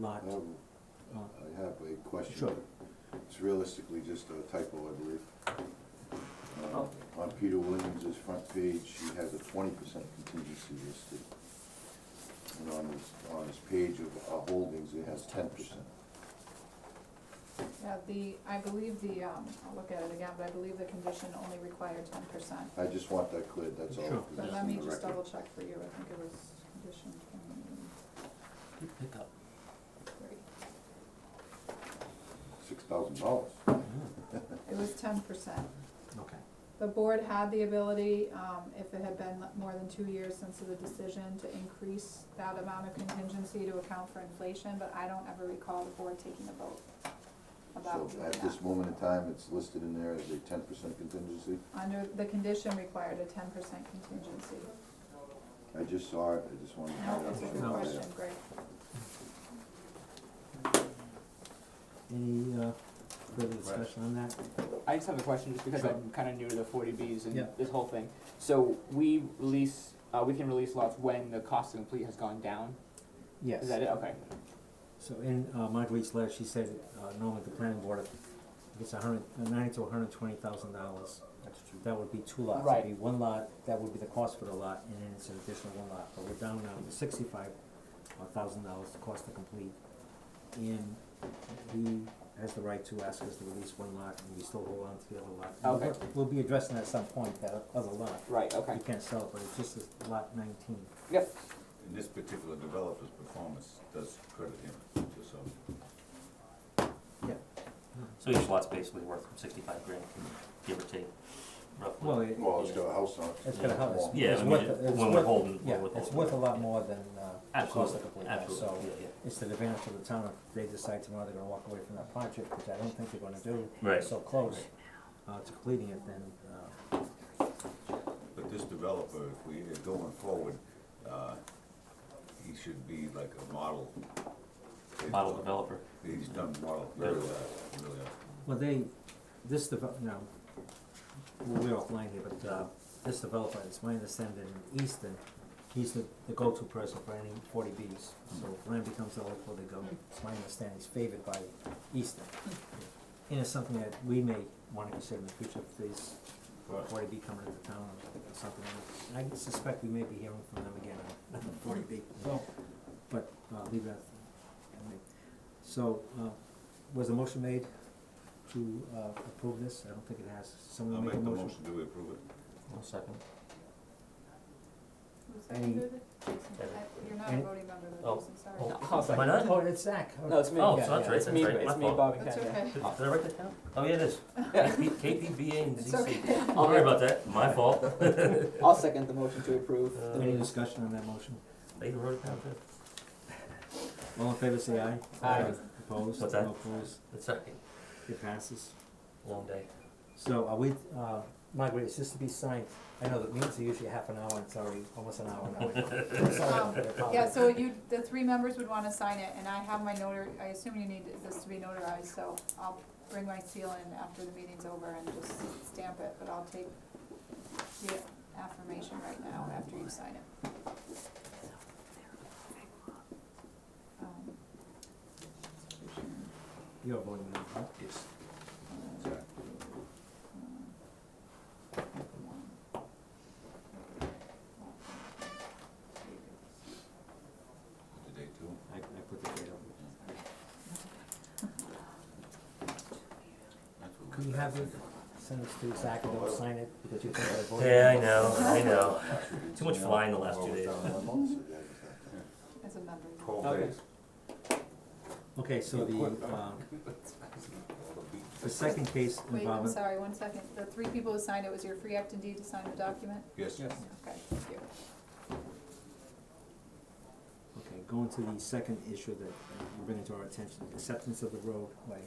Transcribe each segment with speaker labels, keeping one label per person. Speaker 1: lot.
Speaker 2: Um,
Speaker 1: Uh,
Speaker 2: I have a question.
Speaker 1: Sure.
Speaker 2: It's realistically just a typo, I believe. Uh,
Speaker 1: Oh.
Speaker 2: On Peter Williams's front page, he has a twenty percent contingency listed. And on his, on his page of uh, holdings, it has ten percent.
Speaker 3: Yeah, the, I believe the, um, I'll look at it again, but I believe the condition only required ten percent.
Speaker 2: I just want that cleared, that's all.
Speaker 1: Sure.
Speaker 2: 'cause
Speaker 3: But
Speaker 2: it's
Speaker 3: let
Speaker 2: in
Speaker 3: me
Speaker 2: the
Speaker 3: just
Speaker 2: record.
Speaker 3: double check for you, I think it was condition twenty-three.
Speaker 1: Good pickup.
Speaker 2: Six thousand dollars.
Speaker 3: It was ten percent.
Speaker 1: Mm, Okay.
Speaker 3: The board had the ability, um, if it had been more than two years since the decision, to increase that amount of contingency to account for inflation, but I don't ever recall the board taking a vote about
Speaker 2: So
Speaker 3: doing
Speaker 2: at
Speaker 3: that.
Speaker 2: this moment in time, it's listed in there as a ten percent contingency.
Speaker 3: Under, the condition required a ten percent contingency.
Speaker 2: I just saw it, I just wanted to.
Speaker 3: No, that's a good
Speaker 1: No.
Speaker 3: question, Greg.
Speaker 1: Any uh, further discussion on that?
Speaker 4: I just have a question, just because
Speaker 1: Sure.
Speaker 4: I'm kind of new to the forty Bs
Speaker 1: Yeah.
Speaker 4: and this whole thing. So we release, uh, we can release lots when the cost to complete has gone down?
Speaker 1: Yes.
Speaker 4: Is that it? Okay.
Speaker 1: So in uh, Marguerite's letter, she said uh, normally the planning board gets a hundred, uh, ninety to hundred and twenty thousand dollars. That's true. That would be two lots. It'd
Speaker 4: Right.
Speaker 1: be one lot, that would be the cost for the lot, and then it's an additional one lot. But we're down now to sixty-five uh, thousand dollars, the cost to complete. And he has the right to ask us to release one lot, and we still hold on to the other lot. And we'll-
Speaker 4: Okay.
Speaker 1: We'll be addressing at some point, that other lot.
Speaker 4: Right, okay.
Speaker 1: You can't sell it, but it's just this lot nineteen.
Speaker 4: Yep.
Speaker 5: And this particular developer's performance does credit him, just so.
Speaker 1: Yeah.
Speaker 6: So each lot's basically worth sixty-five grand, give or take, roughly.
Speaker 1: Well, it,
Speaker 2: Well, it's got a house on it.
Speaker 1: It's gonna help us.
Speaker 6: Yeah,
Speaker 1: It's
Speaker 6: I mean,
Speaker 1: worth-
Speaker 6: it-
Speaker 1: it's
Speaker 6: when we're
Speaker 1: worth-
Speaker 6: holding- when we're
Speaker 1: Yeah, it's
Speaker 6: holding.
Speaker 1: worth a lot more than, uh, the cost
Speaker 6: Absolutely,
Speaker 1: of complete house, so.
Speaker 6: absolutely, yeah,
Speaker 1: It's to the advantage of the town if they decide tomorrow they're gonna walk away from that project, which I don't think they're gonna do.
Speaker 6: Right.
Speaker 1: So close, uh, to completing it, then, uh,
Speaker 5: But this developer, if we are going forward, uh, he should be like a model.
Speaker 6: yeah. Model developer.
Speaker 5: He's done model very well, really.
Speaker 1: well, they, this develop, you know, we're offline here, but, uh, this developer, it's my understanding, in Easton, he's the, the go-to person for any forty Bs. So if land becomes eligible, they go, it's my understanding, he's favored by Easton. And it's something that we may wanna consider in the future if these
Speaker 5: Right.
Speaker 1: forty B coming into town or something. like that. I suspect we may be hearing from them again on forty B. But, uh, leave that, I mean, so, uh, was the motion made to, uh, approve this? I don't think it has.
Speaker 5: I'll
Speaker 1: Someone
Speaker 5: make
Speaker 1: make a
Speaker 5: the
Speaker 1: motion?
Speaker 5: motion, do we approve it?
Speaker 6: One second.
Speaker 3: Who
Speaker 1: Any-
Speaker 3: seconded it? Jason, I- You're not a
Speaker 1: any-
Speaker 3: voting member of the
Speaker 6: oh,
Speaker 3: Jason, sorry.
Speaker 6: oh.
Speaker 4: I'll second.
Speaker 6: Why not?
Speaker 1: Oh, it's Zach.
Speaker 4: No, it's me.
Speaker 6: Oh,
Speaker 1: Yeah,
Speaker 6: so that's
Speaker 1: yeah.
Speaker 6: right,
Speaker 4: It's me,
Speaker 6: that's right, my
Speaker 4: it's me,
Speaker 6: fault.
Speaker 4: Bob and
Speaker 3: That's
Speaker 4: Ken.
Speaker 3: okay.
Speaker 6: Did did I write that down? Oh, yeah, it is. KP KPBA and
Speaker 3: It's Um,
Speaker 6: ZC. I'll worry about that, my fault.
Speaker 4: I'll second the motion to approve.
Speaker 6: Uh,
Speaker 4: the-
Speaker 1: Any discussion on that motion?
Speaker 6: They even wrote it down too.
Speaker 1: All in favor, say aye.
Speaker 4: Aye.
Speaker 1: Opposed?
Speaker 6: What's that?
Speaker 1: No opposed?
Speaker 6: It's a
Speaker 1: It passes.
Speaker 6: long day.
Speaker 1: So are we, uh, Margaret, is this to be signed? I know that meetings are usually half an hour, and it's already almost an hour now.
Speaker 3: Um, Yeah, so you, the three members would wanna sign it, and I have my notar, I assume you need this to be notarized, so I'll bring my seal in after the meeting's over and just stamp it, but I'll take the affirmation right now after you sign it. Um,
Speaker 1: You're voting now, huh?
Speaker 5: Yes. The date too?
Speaker 1: I, I put the date on.
Speaker 5: That's what we-
Speaker 1: Can you have it, send it to Zach and don't sign it because you think I voted?
Speaker 6: Yeah, I know, I know. Too much flying the last two days.
Speaker 3: As a member. you-
Speaker 5: Twelve
Speaker 4: Okay.
Speaker 5: days.
Speaker 1: Okay, so the, um, the second case
Speaker 3: Wait, I'm
Speaker 1: involving,
Speaker 3: sorry, one second. The three people who signed it, was your free act and deed to sign the document?
Speaker 5: Yes.
Speaker 4: Yes.
Speaker 3: Okay, thank you.
Speaker 1: Okay, going to the second issue that you're bringing to our attention, acceptance of the roadway.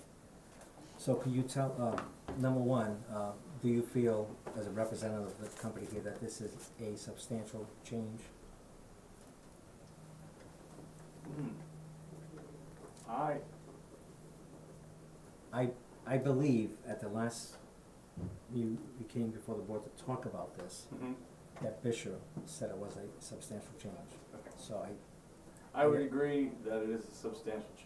Speaker 1: So can you tell, uh, number one, uh, do you feel as a representative of the company here that this is a substantial change?
Speaker 7: I,
Speaker 1: I, I believe at the last, you, you came before the board to talk about this, that Bishop said it was a substantial change. So I,
Speaker 7: I would agree that it is a substantial change.